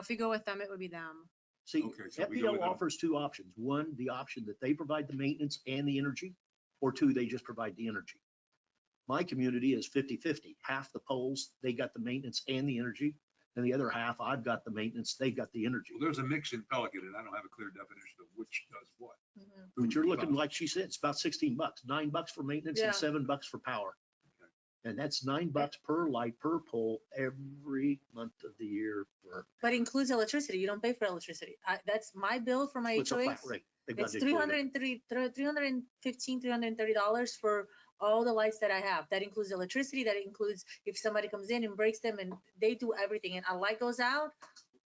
If we go with them, it would be them. See, Okay, so we go FPL with them. offers two options. One, the option that they provide the maintenance and the energy, or two, they just provide the energy. My community is 50-50. Half the poles, they got the maintenance and the energy, and the other half, I've got the maintenance, they've got the energy. Well, there's a mix in Pelican and I don't have a clear definition of which does what. Mm-hmm. Who But you're looking, does. like she said, it's about sixteen bucks, nine bucks for maintenance Yeah. and seven bucks for power. Okay. And that's nine bucks per light, per pole, every month of the year. for- But includes electricity. You don't pay for electricity. I, that's my bill for my It's a HOAs. flat rate. They've got It's it three included. hundred and three, three hundred and fifteen, three hundred and thirty dollars for all the lights that I have. That includes electricity, that includes if somebody comes in and breaks them and they do everything and a light goes out,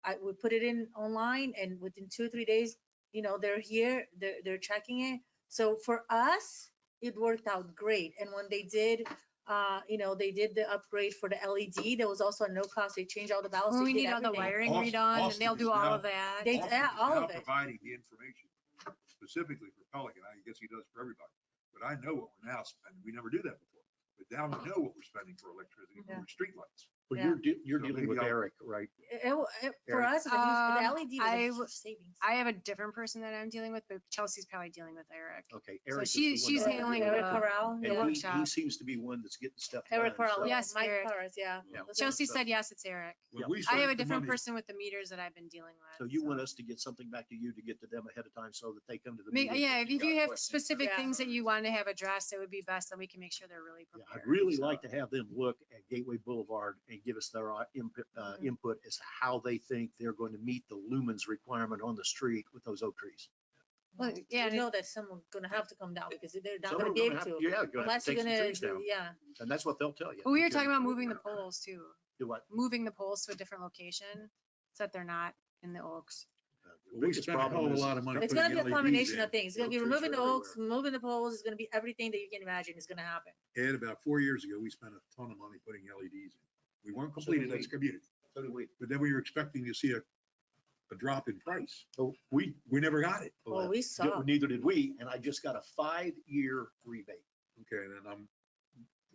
I would put it in online and within two, or three days, you know, they're here, they're, they're checking it. So for us, it worked out great. And when they did, uh, you know, they did the upgrade for the LED, there was also a no cost. They changed all the ballasts. When we they did need all the wiring everything. Austin- redone, and Austin they'll is do all now- of that. They- Austin yeah, is all now of it. Providing the information specifically for Pelican. I guess he does for everybody. But I know what we're now spending. We never do that before. But now we know what we're spending for electricity Yeah. for streetlights. Well, Yeah. you're, de- you're So dealing maybe with I'll- Eric, right? It- it- it- For Eric. us, the huge- the Um, LED was I a w- huge savings. I have a different person that I'm dealing with, but Chelsea's probably dealing with Eric. Okay. Eric is she- one she's that the I'm only dealing Eric with. one. Corral, the And yeah. he, he workshop. seems to be one that's getting stuff done. Eric Corral, so- yeah, uh, Yes, Mike Eric. Corrals, yeah. Yeah. Those are- Chelsea said, yes, it's Eric. When Yeah. I we have a saved the different money- person with the meters that I've been dealing So with. you want us to get something back to you to get to them ahead of time so that they come to the Ma- meeting? Yeah, if you got you have questions. specific Yeah. things that you want to have addressed, it would be best, then we can make sure they're really Yeah, prepared. I'd really so. like to have them look at Gateway Boulevard and give us their uh, input, uh, Mhm. input as how they think they're going to meet the lumens requirement on the street with those oak trees. Well, Mm. yeah, You and it- know that someone's gonna have to come down because they're not Someone gonna be gonna able have- to. Yeah, you're gonna have Unless to take you're some gonna, trees down, do- yeah. and that's what they'll tell you. Well, We were You're talking gonna about moving the poles too, Do what? moving the poles to a different location so that they're not in the Oaks. Uh, the Well, we Biggest spent a problem hell of is. a lot of money. It's putting gonna be a LEDs combination in. of things. It's gonna Oak be trees removing are the oaks, everywhere. moving the poles, it's gonna be everything that you can imagine is gonna happen. And about four years ago, we spent a ton of money putting LEDs in. We weren't completed did as a community, So do we. but then we were expecting to see a, a drop in price. So we, We never got it. Well, we saw. neither did we, and I just got a five-year rebate. Okay, then I'm,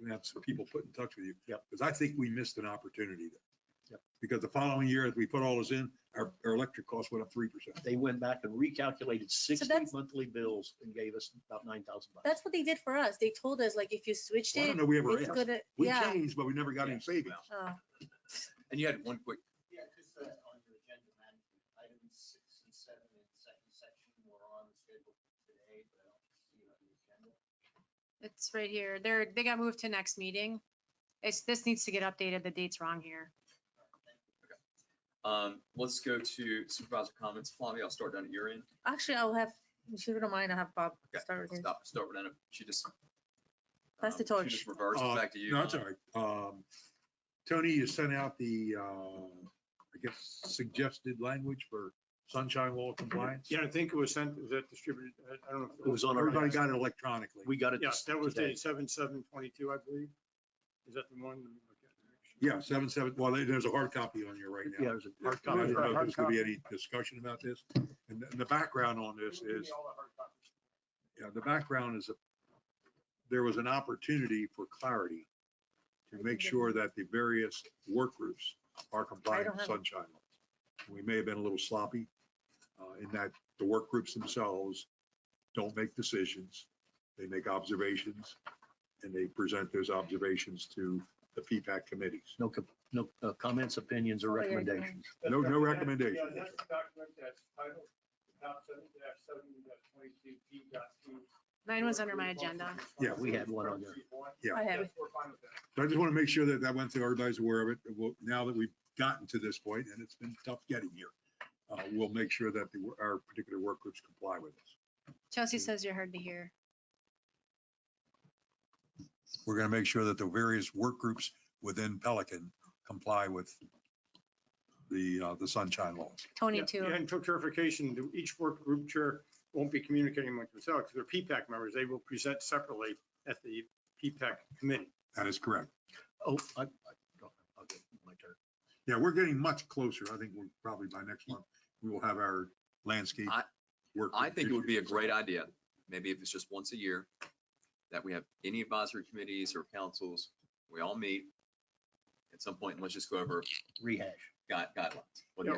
gonna have some people put in touch with you. Yep. Because I think we missed an opportunity there. Yep. Because the following year, as we put all this in, our, our electric cost went up three percent. They went back and recalculated sixty that's- monthly bills and gave us about nine thousand bucks. That's what they did for us. They told us like if you switched I it, don't know, we ever it's asked. gonna, We yeah. changed, but we never got any savings. Oh, And you had one quick, Yeah, just uh, on your agenda management, items six and seven in the second section were on the schedule for today, but I don't see it on the agenda. It's right here. They're, they got moved to next meeting. It's, this needs to get updated. The date's wrong here. um, let's go to supervisor comments. Flavia, I'll start down at your end. Actually, I'll have, if you don't mind, I'll have Bob Okay, start with his. Stop, start with Anna. She just. Pass the um, She just reversed Uh, back to you. No, that's all right. Um, Tony, you sent out the, uh, I guess, suggested language for sunshine law compliance? Yeah, I think it was sent, was that distributed? I- I don't know. if It was on our Everybody got it electronically. We got it. Yeah, this- that was today. the seven, seven twenty-two, I believe. Is that the one? Let me look at it. Yeah, seven, seven, well, there- there's a hard copy on here right Yeah, now. there's a hard I copy. don't know if Hard there's going to be any discussion about this. And the- and the background on this is, yeah, the background is, a- there was an opportunity for clarity to make sure that the various work groups are compliant with have it. sunshine laws. We may have been a little sloppy uh, in that the work groups themselves don't make decisions. They make observations and they present those observations to the PPAC committees. No, com- no uh, comments, opinions, or Oh, yeah, yeah. recommendations. No- no Yeah, recommendation. Yeah, that's the document that's titled, top seven dash seven dash twenty-two P dot two. Mine was under my agenda. Yeah, we had one on there. Yeah. I have it. Yes, We're fine with that. So I just want to make sure that that went through, everybody's aware of it. Well, now that we've gotten to this point, and it's been tough getting here, uh, we'll make sure that the, our particular work groups comply with us. Chelsea says you're hard to hear. We're going to make sure that the various work groups within Pelican comply with the, uh, the sunshine laws. Tony Yeah, too. yeah, And for clarification, do- each work group chair won't be communicating with themselves, 'cause they're PPAC members, they will present separately at the PPAC committee. That is correct. Oh, I, I don't know. Okay, my turn. Yeah, we're getting much closer. I think we're probably by next month, we will have our landscape I- work. I group think it would be a issues. great idea, maybe if it's just once a year, that we have any advisory committees or councils, we all meet at some point, and let's just go over Rehash. guide- guidelines. What do you Yeah,